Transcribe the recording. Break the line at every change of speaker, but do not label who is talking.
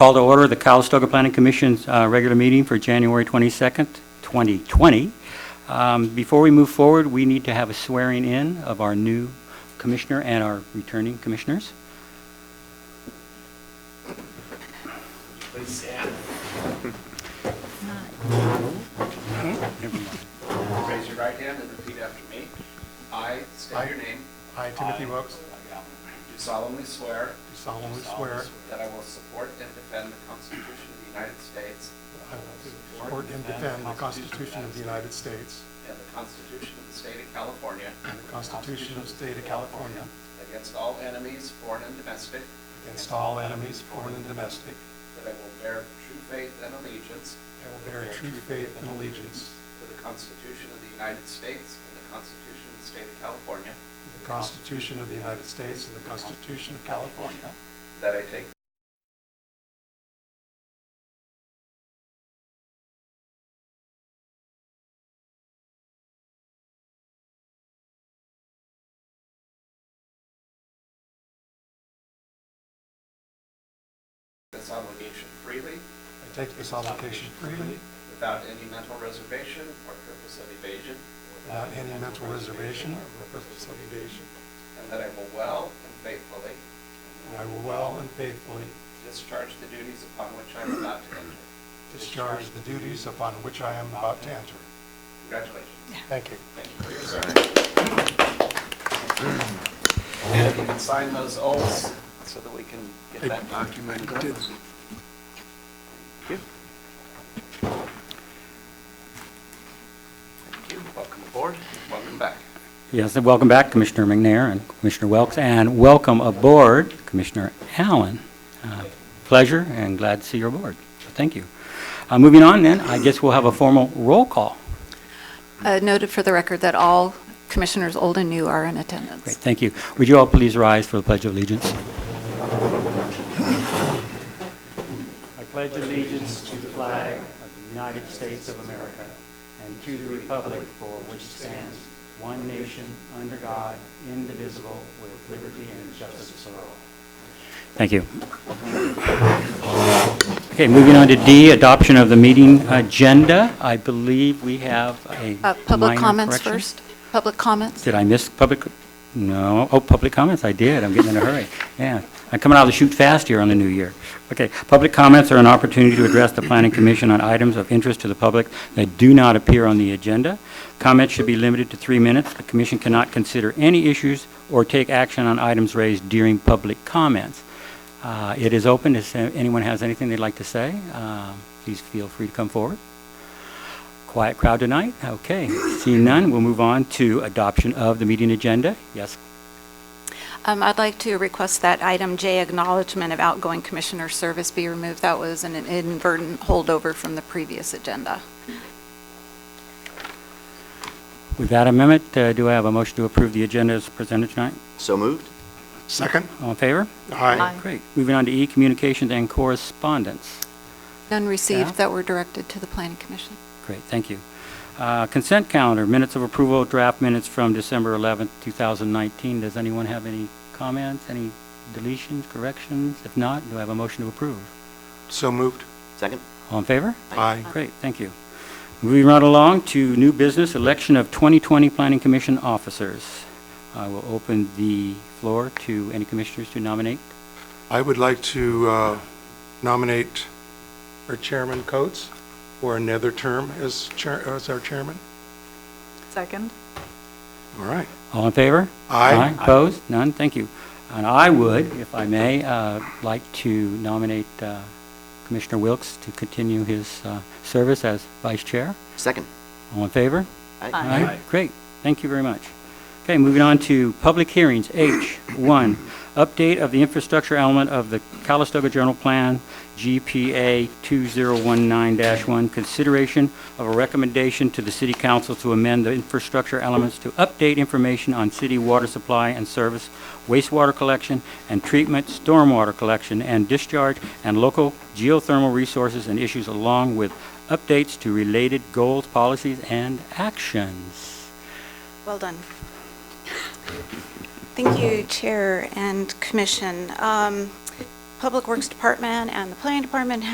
Call to order the Calistoga Planning Commission's uh, regular meeting for January 22nd, 2020. Um, Before we move forward, we need to have a swearing-in of our new commissioner and our returning commissioners.
Please stand. Raise your right hand and repeat after me. I state your name.
I, Timothy Wilkes,
Do solemnly swear.
do solemnly swear
That I will support and defend the Constitution of the United States
that I will support and defend the Constitution of the United States
and the Constitution of the State of California
and the Constitution of the State of California
against all enemies, foreign and domestic,
against all enemies, foreign and domestic.
that I will bear true faith and allegiance
I will bear true faith and allegiance
to the Constitution of the United States and the Constitution of the State of California,
to the Constitution of the United States and the Constitution of California.
that I take this obligation freely,
I take this obligation freely
without any mental reservation or purpose of evasion,
without any mental reservation or purpose of evasion.
and that I will well and faithfully
And I will well and faithfully
discharge the duties upon which I am about to enter.
discharge the duties upon which I am about to enter.
Congratulations.
Thank you.
Thank you for your service. And if you can sign those oaths so that we can get that document. Thank you. Thank you. Welcome aboard. Welcome back.
Yes, and welcome back, Commissioner McNair and Commissioner Welks, and welcome aboard, Commissioner Allen. Uh, Pleasure and glad to see you're aboard. So Thank you. Uh, Moving on then, I guess we'll have a formal roll call.
Uh, Noted for the record that all commissioners, old and new, are in
Great,
attendance.
thank you. Would you all please rise for the Pledge of Allegiance?
I pledge allegiance to the flag of the United States of America and to the republic for which it stands, one nation, under God, indivisible, with liberty and justice for all.
Thank you. Okay, moving on to D, adoption of the meeting agenda. I believe we have a
Uh, Public
minor
comments
correction.
first? Public comments?
Did I miss public, no, oh, public comments, I did, I'm getting in a hurry. Yeah, I'm coming out of the chute fast here on the new year. Okay, public comments are an opportunity to address the planning commission on items of interest to the public that do not appear on the agenda. Comments should be limited to three minutes. The commission cannot consider any issues or take action on items raised during public comments. Uh, It is open, if anyone has anything they'd like to say, uh, please feel free to come forward. Quiet crowd tonight? Okay. Seeing none, we'll move on to adoption of the meeting agenda. Yes,
Um, I'd like to request that item J, acknowledgement of outgoing commissioner service be removed. That was an inadvertent holdover from the previous agenda.
with that amendment, uh, do I have a motion to approve the agenda as presented tonight?
So moved?
Second?
All in favor?
Aye.
Aye.
Great. Moving on to E, communications and correspondence.
None
Yeah.
received that were directed to the planning commission.
Great, thank you. Uh, Consent calendar, minutes of approval, draft minutes from December 11th, 2019. Does anyone have any comments, any deletions, corrections? If not, do I have a motion to approve?
So moved.
Second?
All in favor?
Aye.
Great, thank you. Moving right along to new business, election of 2020 Planning Commission officers. I will open the floor to any commissioners to nominate.
I would like to uh, nominate our Chairman Coates for another term as chair, as our chairman.
Second.
All right.
All in favor?
Aye.
Opposed? None? Thank you. And I would, if I may, uh, like to nominate uh, Commissioner Wilks to continue his uh, service as vice chair.
Second?
All in favor?
Aye.
All right, great. Thank you very much. Okay, moving on to public hearings. H1, update of the infrastructure element of the Calistoga General Plan, GPA 2019-1, consideration of a recommendation to the city council to amend the infrastructure elements to update information on city water supply and service, wastewater collection and treatment, stormwater collection and discharge, and local geothermal resources and issues along with updates to related goals, policies, and actions.
Well done. Thank you, Chair and Commission. Um,
Public Works Department and the Planning Department